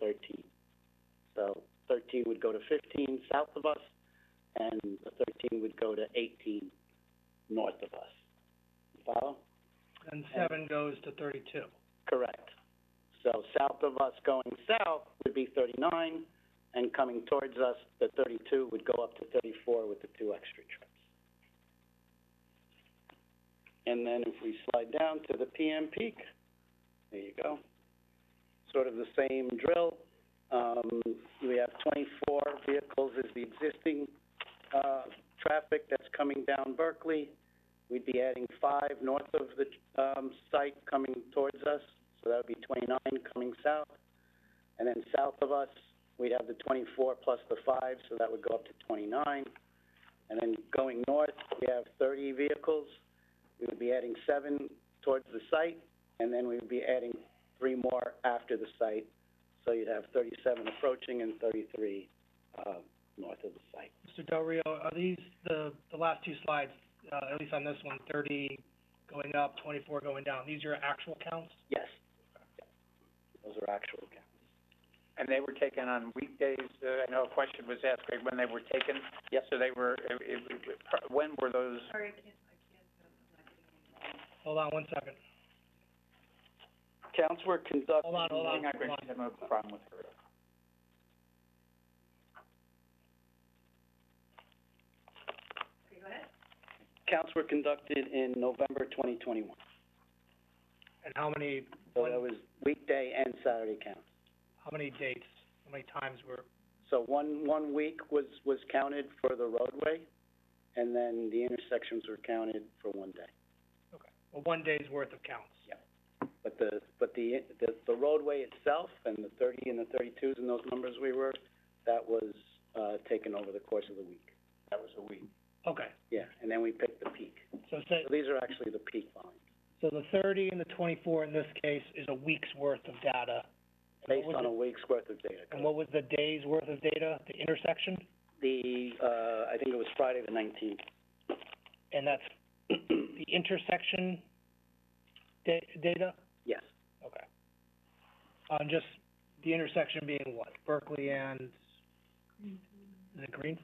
thirteen. So thirteen would go to fifteen south of us, and the thirteen would go to eighteen north of us. You Follow? And seven goes to thirty-two. Correct. So south of us going south would be thirty-nine, and coming towards us, the thirty-two would go up to thirty-four with the two extra trips. And then if we slide down to the PM peak, there you go. Sort of the same drill. Um, we have twenty-four vehicles is the existing, uh, traffic that's coming down Berkeley. We'd be adding five north of the, um, site coming towards us, so that would be twenty-nine coming south. And then south of us, we'd have the twenty-four plus the five, so that would go up to twenty-nine. And then going north, we have thirty vehicles. We would be adding seven towards the site, and then we would be adding three more after the site. So you'd have thirty-seven approaching and thirty-three, uh, north of the site. Mr. Del Rio, are these the, the last two slides, uh, at least on this one, thirty going up, twenty-four going down, these are actual counts? Yes. Those are actual counts. And they were taken on weekdays, uh, I know a question was asked, Greg, when they were taken? Yes. So they were, it, it, when were those? Hold on one second. Counts were conducted. Hold on, hold on, Hang on, Greg, hold she's on. having a problem with her. Counts were conducted in November twenty twenty-one. And how many, So that was weekday and Saturday counts. how many dates, how many times were, So one, one week was, was counted for the roadway, and then the intersections were counted for one day. okay, well, one day's worth of counts? But the, but the, the, the roadway itself and the thirty and the thirty-twos and those numbers we were, that was, uh, taken over the course of the week. That was a week. Okay, Yeah, and then we picked the peak. so say, So these are actually the peak volumes, so the thirty and the twenty-four in this case is a week's worth of data. And what based was on the- a week's worth of data. And what was the day's worth of data, the intersection? The, uh, I think it was Friday the nineteenth. And that's the intersection da- data? Yes, Okay. On just the intersection being what, Berkeley and, is it Green?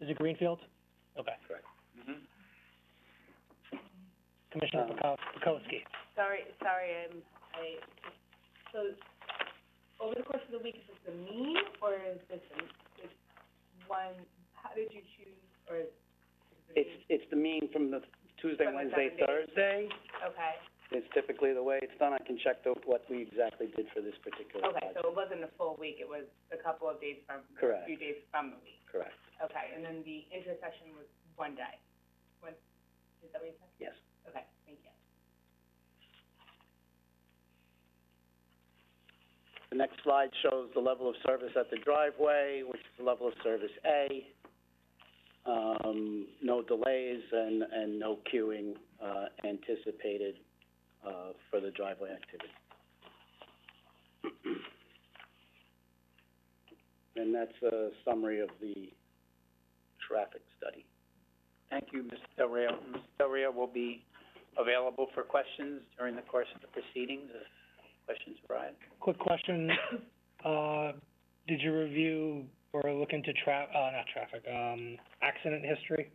Is it Greenfield? Okay, correct. Mm-hmm. Commissioner Um, Pekow- Pekowski. Sorry, sorry, I'm, I, so, over the course of the week, is this the mean, or is this, a- it's one, how did you choose, or is it the It's, mean? it's the mean from the Tuesday, From the Wednesday, Saturday. Thursday. Okay, It's typically the way it's done. I can check the, what we exactly did for this particular okay, project. so it wasn't a full week, it was a couple of days from, a Correct, few days from the week. correct, Okay, and then the intersection was one day, one, is that what you said? yes. Okay, thank you. The next slide shows the level of service at the driveway, which is the level of service A. Um, no delays and, and no queuing, uh, anticipated, uh, for the driveway activity. And that's a summary of the traffic study. Thank you, Mr. Del Rio. Mr. Del Rio will be available for questions during the course of the proceedings if questions arise. Quick question, uh, did you review or look into tra- uh, not traffic, um, accident history?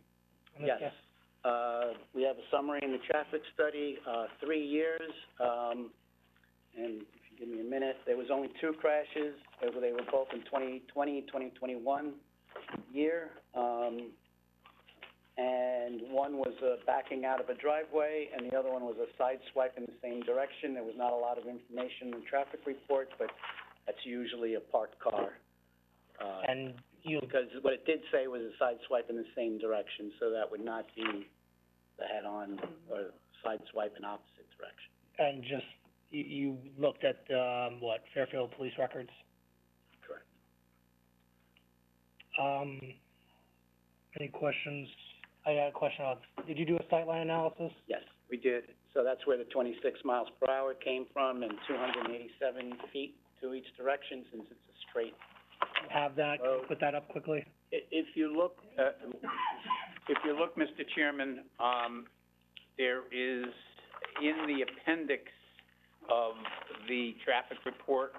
on this Yes. case? Uh, we have a summary in the traffic study, uh, three years, um, and if you give me a minute, there was only two crashes. They were, they were both in 2020, 2021 year. Um, and one was, uh, backing out of a driveway, and the other one was a side swipe in the same direction. There was not a lot of information in the traffic report, but that's usually a parked car. Uh, And you, because what it did say was a side swipe in the same direction, so that would not be the head-on or side swipe in opposite direction. and just, you, you looked at, um, what, Fairfield Police Records? Correct. Um, any questions? I got a question on, did you do a sightline analysis? Yes. We did. So that's where the twenty-six miles per hour came from and two hundred and eighty-seven feet to each direction since it's a straight. Have that, Oh. put that up quickly? I- If you look, uh, if you look, Mr. Chairman, um, there is, in the appendix of the traffic report,